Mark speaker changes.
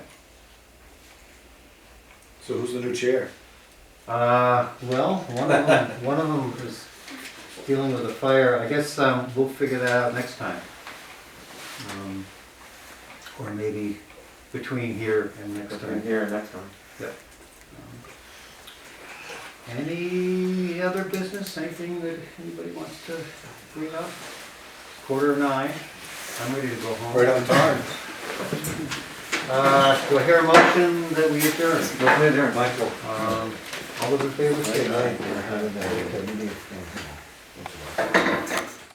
Speaker 1: So who's the new chair?
Speaker 2: Uh, well, one of them, one of them is dealing with a fire. I guess um, we'll figure that out next time. Um, or maybe between here and next
Speaker 3: Between
Speaker 2: time.
Speaker 3: here and next one.
Speaker 2: Any other business? Anything that anybody wants to bring up? Quarter of nine. I'm ready to go home.
Speaker 1: Right on time.
Speaker 2: Uh, do I hear a motion that we adjourn?
Speaker 3: Motion adjourned.
Speaker 1: Michael.
Speaker 2: Um, all those in favor say aye.
Speaker 1: Aye.